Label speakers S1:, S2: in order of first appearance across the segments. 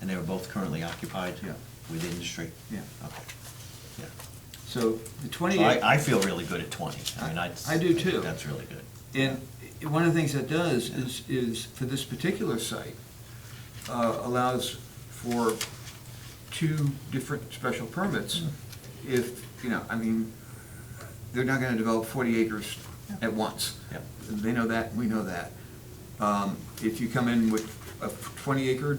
S1: And they were both currently occupied?
S2: Yeah.
S1: With industry?
S2: Yeah.
S1: Okay, yeah.
S2: So the
S1: So I, I
S2: twenty-eight,
S1: feel really good at twenty. I mean,
S2: I-
S1: that's.
S2: I do too.
S1: That's really good.
S2: and one of the things that does is, is for this particular site, uh, allows for two different special permits.
S1: Hmm.
S2: If, you know, I mean, they're not gonna develop forty acres at once.
S1: Yep.
S2: They know that, we know that. Um, If you come in with a twenty acre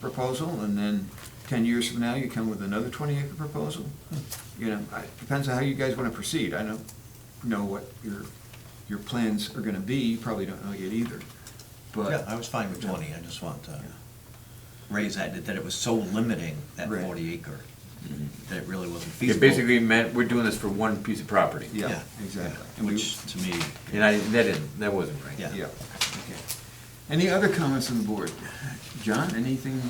S2: proposal, and then ten years from now, you come with another twenty acre proposal, you know, I- depends on how you guys wanna proceed. I don't know what your, your plans are gonna be, you probably don't know yet either, but.
S1: Yeah, I was fine with twenty, I just want to raise that, that it was so limiting, that
S2: Right.
S1: forty acre, that it really wasn't
S3: It
S1: feasible.
S3: basically meant, we're doing this for one piece of property.
S2: Yeah, exactly. And we-
S1: Which, to me,
S3: And I, that didn't, that wasn't right.
S1: Yeah.
S2: Yeah, okay. Any other comments on the board? John, anything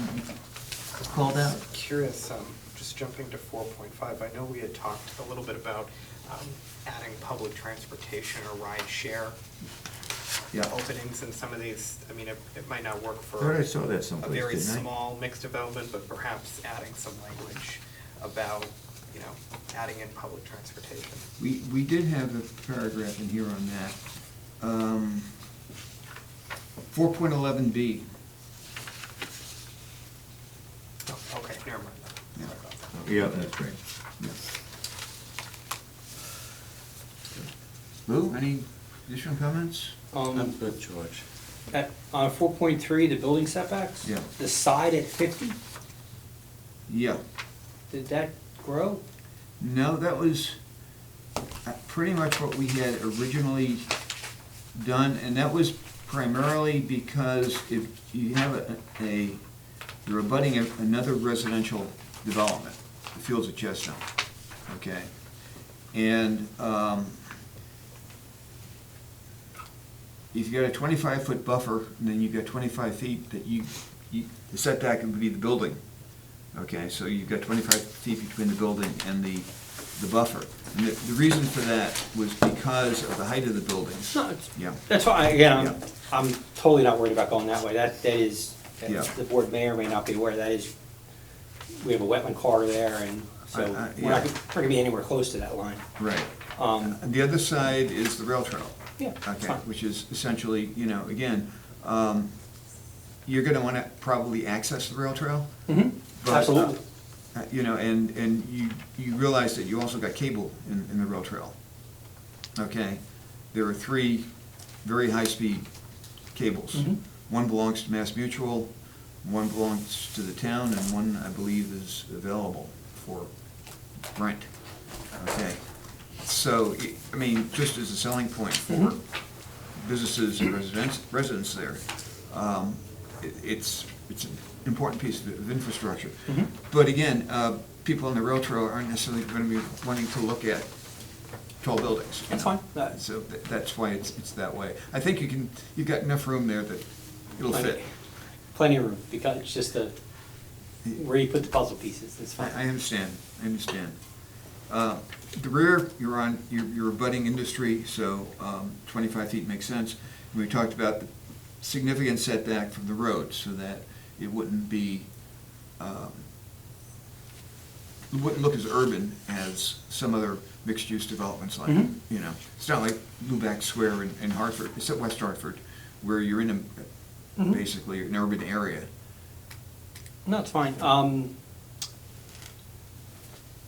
S2: called out?
S4: Curious, um, just jumping to four point five, I know we had talked a little bit about, um, adding public transportation or ride share
S2: Yeah.
S4: openings in some of these, I mean, it, it might not work for
S3: Thought I saw that
S4: a
S3: someplace,
S4: very
S3: didn't I?
S4: small mixed development, but perhaps adding some language about, you know, adding in public transportation.
S2: We, we did have a paragraph in here on that. Um, 4.11B,
S4: Oh, Okay, never mind. Sorry about that.
S3: Yeah, that's right.
S2: yes. Lou, any additional comments?
S5: Um,
S3: good, George.
S5: at, uh, four point three, the building setbacks?
S2: Yeah.
S5: The side at fifty,
S2: Yeah.
S5: did that grow?
S2: No, that was uh, pretty much what we had originally done, and that was primarily because if you have a, a, you're abutting a- another residential development, the Fields of Chestnut, okay? And, um, if you got a twenty-five foot buffer, and then you've got twenty-five feet that you, you, the setback would be the building. Okay, so you've got twenty-five feet between the building and the, the buffer. And the, the reason for that was because of the height of the building.
S5: No, it's,
S2: Yeah,
S5: that's fine, again, I'm,
S2: Yeah.
S5: I'm totally not worried about going that way, that, that is,
S2: Yeah.
S5: the board may or may not be aware, that is, we have a wetland corridor there, and so,
S2: I- I-
S5: we're not,
S2: yeah.
S5: gonna- we're gonna be anywhere close to that line.
S2: right.
S5: Um,
S2: And the other side is the rail trail.
S5: yeah, it's
S2: Okay,
S5: fine.
S2: which is essentially, you know, again, um, you're gonna wanna probably access the rail trail.
S5: Mhm.
S2: but, uh,
S5: Absolutely.
S2: uh, You know, and, and you, you realize that you also got cable in, in the rail trail. Okay? There are three very high-speed cables.
S5: Mhm.
S2: One belongs to Mass Mutual, one belongs to the town, and one, I believe, is available for rent. Okay? So, i- I mean, just as a selling point for
S5: Mm-hmm.
S2: businesses and residents, residents there, um, it- it's, it's an important piece of- of infrastructure.
S5: Mhm.
S2: But again, uh, people on the rail trail aren't necessarily going to be wanting to look at tall buildings. you
S5: That's
S2: know?
S5: fine. Uh, That-
S2: So tha- that's why it's, it's that way. I think you can, you've got enough room there that it'll fit.
S5: Plenty- Plenty of room, because it's just the, where you put the puzzle pieces, it's
S2: I, I
S5: fine.
S2: understand, I understand. Uh, The rear, you're on, you're you're abutting industry, so um, 25 feet makes sense. And We talked about the significant setback from the road, so that it wouldn't be, um, it wouldn't look as urban as some other mixed-use developments like,
S5: Mhm.
S2: you know. It's not like Lubac Square in- in Hartford, it's at West Hartford, where you're in a,
S5: Mhm.
S2: basically, an urban area.
S5: No, it's fine, um,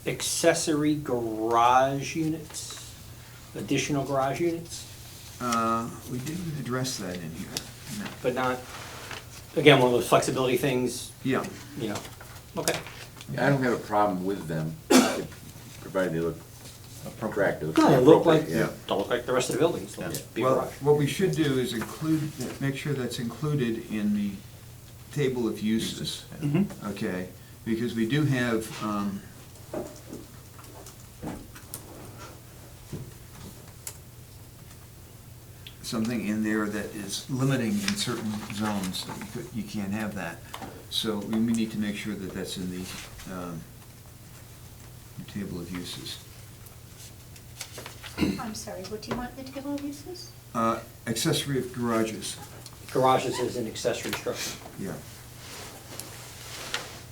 S5: accessory garage units, additional garage units?
S2: Uh, We didn't address that in here, no.
S5: but not, again, one of those flexibility things,
S2: Yeah,
S5: you know, okay.
S3: I don't have a problem with them, provided they look attractive.
S5: Don't look like,
S3: appropriate,
S5: don't look like the rest of the buildings,
S1: Yeah.
S5: they'll just be a
S2: well,
S5: garage.
S2: what we should do is include, that- make sure that's included in the table of uses,
S5: Mhm.
S2: okay? Because we do have, um, something in there that is limiting in certain zones, that you could- you can't have that. So we we need to make sure that that's in the, um, table of uses.
S6: I'm sorry, what do you want in the table of uses?
S2: Uh, accessory garages,
S5: Garages is an accessory structure,
S2: yeah.